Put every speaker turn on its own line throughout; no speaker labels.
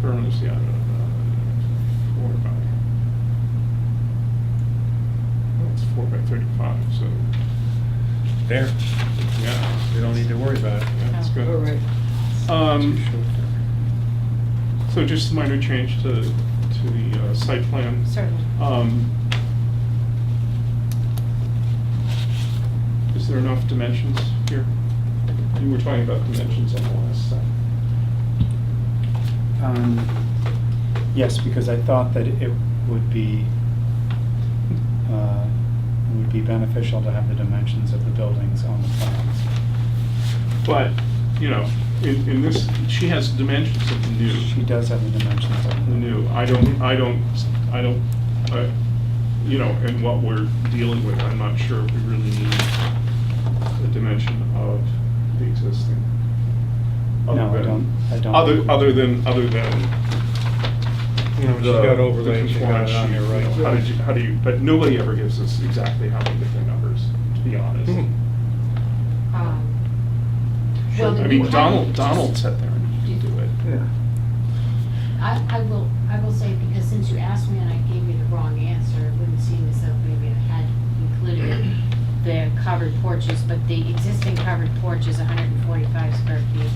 currently out of uh, four by, well, it's four by thirty-five, so,
There,
yeah.
we don't need to worry about it.
That's good.
All right.
Um,
Too short there.
So just a minor change to, to the uh, site plan.
Certainly.
Um, Is there enough dimensions here? You were talking about dimensions on the last site.
Um, Yes, because I thought that it would be, uh, it would be beneficial to have the dimensions of the buildings on the plans.
But, you know, in, in this, she has dimensions of the new.
She does have the dimensions of
the
the
new, I don't, I don't, I don't, I- you know, and what we're dealing with, I'm not sure if we really need the dimension of the existing. Other
No, I
than-
don't- I don't.
Other, other than, other than.
You know, she's
the-
got
the
overlays, she's got
compliance
it on there,
sheet, you know, How
right?
did you, how do you, but nobody ever gives us exactly how many different numbers, to be honest.
Hmm.
Um, Well,
I
you
mean,
have-
Donald, Donald sat there and he could do it.
Yeah.
I, I will, I will say, because since you asked me and I gave you the wrong answer, it wouldn't seem as though maybe I had included the covered porches, but the existing covered porch is hundred and forty-five square feet,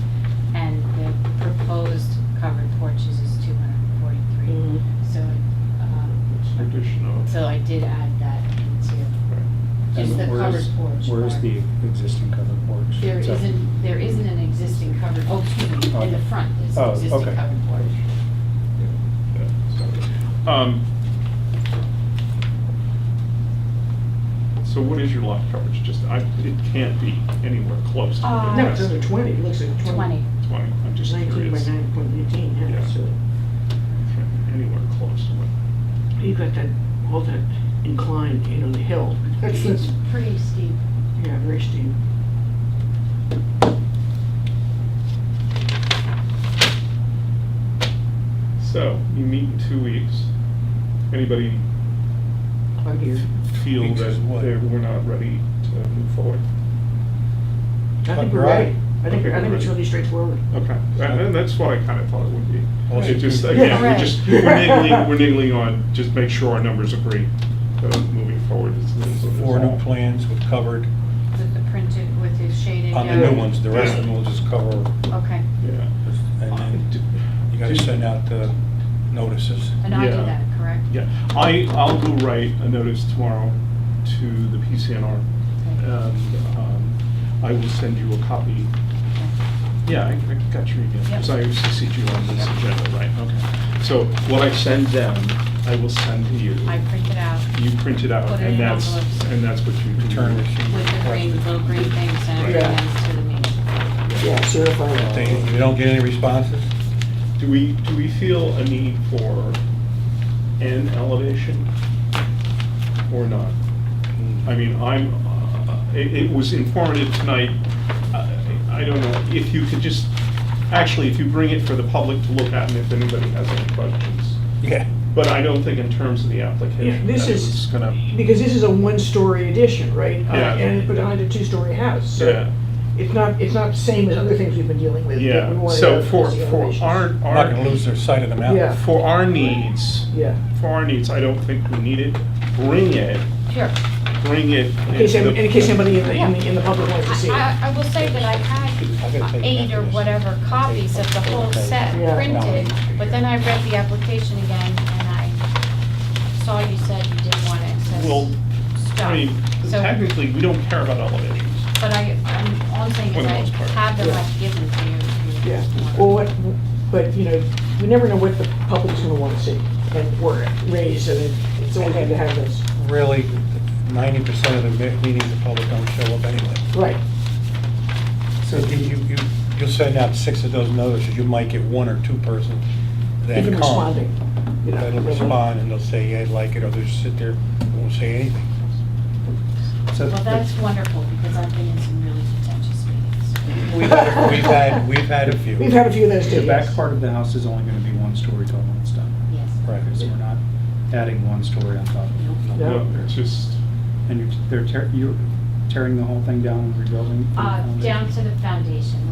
and the proposed covered porches is two hundred and forty-three. So, um,
It's an addition of-
so I did add that into,
right.
just the
And where's-
covered porch.
Where's
part.
the existing covered porch?
There
So-
isn't, there isn't an existing covered, oh, excuse me, in the
Okay.
front, there's
Oh,
an existing
okay.
covered porch.
Um, So what is your lot coverage? Just, I, it can't be anywhere close to
Uh,
what
No,
it
it's
has to
under
be.
twenty, it looks like twenty.
Twenty.
Twenty, I'm just
Nineteen by
curious.
nine point eighteen,
Yeah.
yeah, so
Can't be Anywhere close to what,
you got that, all that inclined, you know, the hill. That's,
It's
yeah,
pretty steep.
very steep.
so you meet in two weeks. Anybody
I'm here.
feel
Weeks
that
is what?
they we're not ready to move forward?
I
But
think we're
right.
ready. I think, I think it's really straightforward.
Okay, and and that's what I kind of thought it would be.
Well,
It just,
yeah.
again, we're
Right.
just, we're niggling, we're niggling on, just make sure our numbers agree, uh, moving forward. is- is- is
Four new
all.
plans with covered,
With the printed, with the shaded.
on the
yellow.
new ones, the rest of them will just cover,
Okay,
Yeah.
and then you gotta send out the notices.
and I do
Yeah.
that, correct?
Yeah, I, I'll go write a notice tomorrow to the PCNR.
Okay.
And um, I will send you a copy. Yeah, I I got your email, because I CC'd you on this agenda, right? Okay. So what I send them, I will send to you.
I print it out
You print it out,
Put it in
and that's,
envelopes.
and that's what you return.
Return receipt.
with the green, little green things and
Right.
everything else to the meeting.
Yeah, certified.
If they- if you don't get any responses,
Do we, do we feel a need for an elevation or not?
Hmm.
I mean, I'm, uh, it it was informative tonight. I I don't know, if you could just, actually, if you bring it for the public to look at and if anybody has any questions.
yeah.
But I don't think in terms of the
Yeah,
application, that
this
it's
is,
gonna,
because this is a one-story addition, right? Uh,
Yeah.
And, but on a two-story house,
yeah,
so it's not, it's not the same as other things we've been dealing with. that we
yeah.
wanted
So
to
for,
see
for
elevations.
our,
We're Not gonna
our,
lose their sight of the mountain.
Yeah.
for our needs,
Yeah.
for our needs, I don't think we need it. Bring it,
Sure.
bring it.
In case,
into the-
in case somebody in the, in the- in the public wants to see it.
I, I I will say that I had eight or whatever copies of the whole set
Yeah.
printed, but then I read the application again and I saw you said you didn't want excess
Well, I mean,
stuff. So,
technically, we don't care about elevations.
but I, I'm, all I'm saying
For
is
the
I
most part.
have them,
Yeah.
I've given to you. if you
Yeah,
want.
well, what, but, you know, we never know what the public's gonna wanna see and or raise, and it- it's always good to have those.
Really, ninety percent of the me- meetings, the public don't show up anyway.
Right.
So you, you, you- you'll send out six of those notices, you might get one or two persons that
Even
come.
responding, you know. Mm-hmm.
That'll respond and they'll say, yeah, I like it, or they'll just sit there, and won't say anything.
So
Well,
the-
that's wonderful, because I've been in some really contentious meetings.
We've had, we've had, we've had a few.
We've had a few of those too.
The back
yes.
part of the house is only going to be one story total when it's done.
Yes.
Right.
So we're not adding one story on top of it.
Yeah.
No, it's just,
And you're, they're tear- you're tearing the whole thing down and rebuilding?
Uh,
the foundation?
down to the foundation,